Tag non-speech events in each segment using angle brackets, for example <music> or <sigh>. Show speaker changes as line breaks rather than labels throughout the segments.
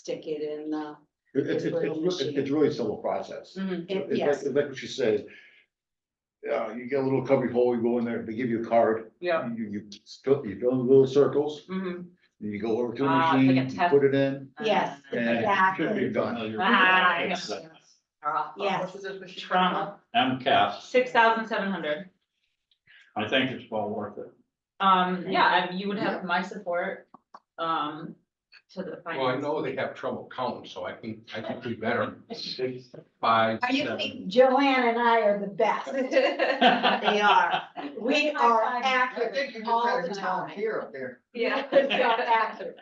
stick it in the.
It- It's, it's,
Little
it's re-
machine. Mm,
it's really a simple process.
uh, it-
It's like,
Yes,
it's like what she said. Uh, you get a little cubby hole, you go in there, they give you a card,
Yeah.
you, you fill, you fill in little circles,
Mhm.
then you go over to the
Ah, it's like a
machine, you
test.
put it in.
Yes.
Uh,
And it should be
Exactly.
done.
Ah, I
Yes.
know. Uh,
Yes.
What was this machine?
Trauma,
MCAS,
six thousand seven hundred.
I think it's well worth it.
Um, yeah, I- you would have my support, um, to the
Well, I
finance.
know they have trouble counting, so I can, I can
<laughs>
do better. Five,
Are you
seven.
kidding? Joanne and I are the best. <laughs> They are. We are
I think you
accurate
just
all
had a
the time.
volunteer up there.
<laughs>
<laughs>
Yeah.
We are accurate.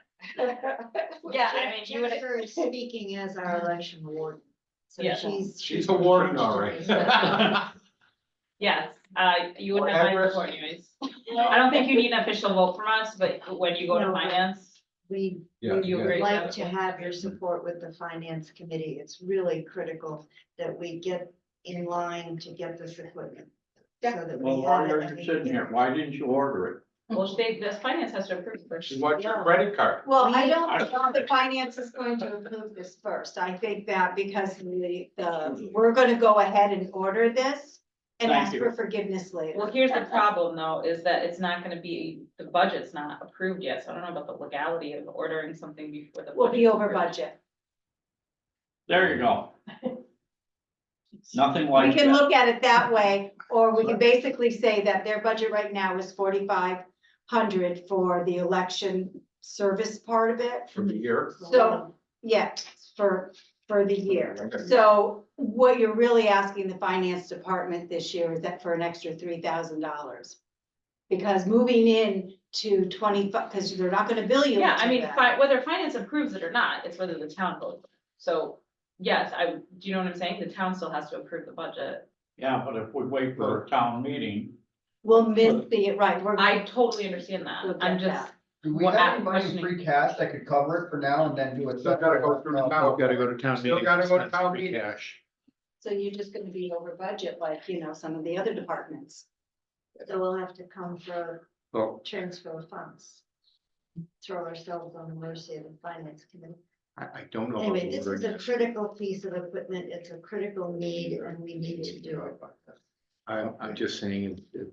<laughs>
Yeah, I mean, you would-
Jennifer is <laughs> speaking as our election warden. So
Yeah.
she's.
She's a warden,
<laughs>
all right.
Yes, uh, you would have my
Whatever.
support anyways. I don't think you need an official vote from us, but when you go to
No.
finance,
We
Yeah,
you
yeah.
agree.
would like to have your support with the finance committee. It's really critical that we get in line to get this equipment. so that
Well,
we
while
have
you're
it.
sitting here, why didn't you order
well, they, this finance has to approve first.
She wants your credit card.
Well, I
We-
don't think the finance is going to approve this first. I think that because the, the, we're gonna go ahead and order this and
Thank
ask
you.
for forgiveness later.
Well, here's the problem though, is that it's not gonna be, the budget's not approved yet, so I don't know about the legality of ordering something before the.
We'll be
budget's
over
approved.
budget.
it? There you
<laughs>
go. Nothing
We
like
can
that.
look at it that way, or we can basically say that their budget right now is forty-five hundred for the election service part of it.
For the year.
So, yeah, for, for the year. So what you're really asking the finance department this year is that for an extra three thousand dollars. Because moving in to twenty-five, because they're not gonna bill you.
Yeah, I
until
mean,
then.
fi- whether finance approves it or not, it's whether the town votes. So, yes, I, do you know what I'm saying? The town still has to approve the budget.
Yeah, but if we wait for a town meeting,
We'll miss the, right, we're,
I totally understand that.
Look
I'm
at
just,
Do we
Well,
have any
I'm
money in
questioning.
free cash that could cover it for now and then do a.
Still gotta go through the town.
Gotta go to town
Still gotta go to town meeting. Cash.
so you're just gonna be over budget like, you know, some of the other departments. So we'll have to come for
So
transfer of funds. Throw ourselves on the mercy of the finance committee.
I, I don't
Oh,
know.
Anyway, this is a critical piece of equipment. It's a critical need and we need to do it.
I'm, I'm just saying, it- it-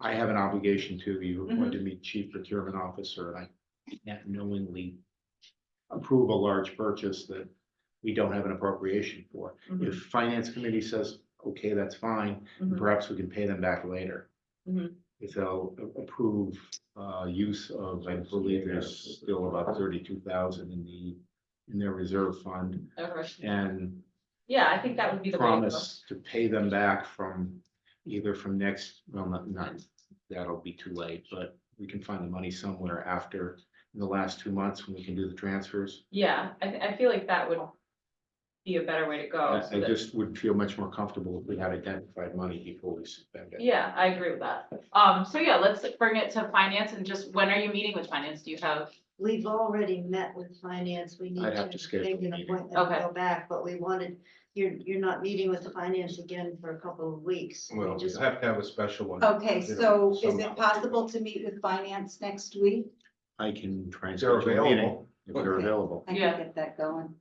I have an obligation to you,
Mhm.
going to
Mm-hmm.
meet chief procurement officer, and I can't knowingly approve a large purchase that we don't have an appropriation for.
Mhm.
If finance committee says, okay, that's fine,
Mhm.
perhaps we can pay them back later.
Mhm.
If they'll a- approve, uh, use of, I believe there's still about thirty-two thousand in the, in their reserve fund,
over-
and
yeah, I think that would be the way. to go.
promise to pay them back from either from next, well, not, not, that'll be too late, but we can find the money somewhere after in the last two months when we can do the transfers.
Yeah, I, I feel like that would be a better way to go.
I
so
I
that-
just would feel much more comfortable if we had identified money before we spend it.
Yeah, I agree with that. Um, so yeah, let's bring it to finance and just, when are you meeting with finance? Do you have?
We've already met with finance, we need
I'd have
to
to schedule
make
a
an
meeting.
appointment and
Okay.
go back, but we wanted, you're, you're not meeting with the finance again for a couple of weeks. We
Well,
just- Oh.
we'll have to have a special one.
Okay,
you know,
so is
somehow.
it possible to meet with finance next week?
I can try and
If they're
schedule a meeting
available.
if they're
Okay.
available.
I can Yeah.
get that going.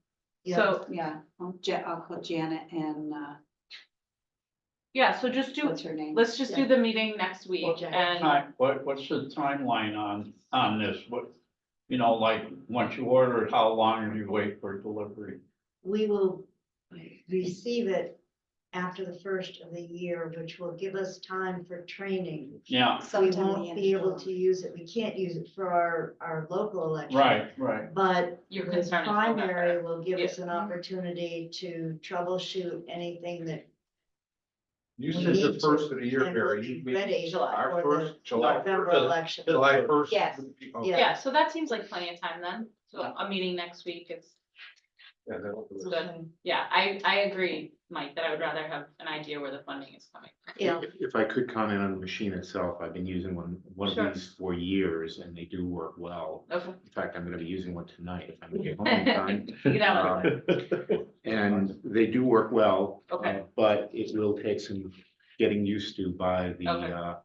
So-
Yeah, I'll, I'll call Janet and, uh,
Yeah, so just do,
her name?
let's just do the meeting next week
Okay.
and,
time, what, what's the timeline on, on this? What, you know, like, once you order, it, how long do you wait for delivery?
we will receive it after the first of the year, which will give us time for training.
Yeah,
We won't be able to use it, we can't use it for our, our local election.
right, right.
But
your
the
concern is. November.
primary will give us an opportunity to troubleshoot anything that
You
We
said
need
the
to-
first of the year,
and
Barry.
we'll
you
be
mean
ready
Our
for the
first, July,
November
first,
election.
July first. Oh,
Yes.
Okay,
Yeah.
Yeah, so that seems like plenty of time then. So a meeting next week is,
yeah, that'll do it.
Good. yeah, I, I agree, Mike, that I would rather have an idea where the funding is coming.
Yeah.
If- If I could comment on the machine itself, I've been using one, one
Sure.
of these for years and they do work well. <laughs>
Okay.
In fact, I'm gonna be using one tonight if I make it
<laughs>
home in time.
You know,
Uh, And they do work well. uh,
Okay.
But it will take some getting used to by the,
Okay.
uh,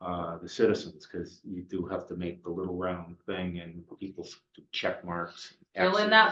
uh, the citizens, because you do have to make the little round thing and people check marks.
fill in
Xs.
that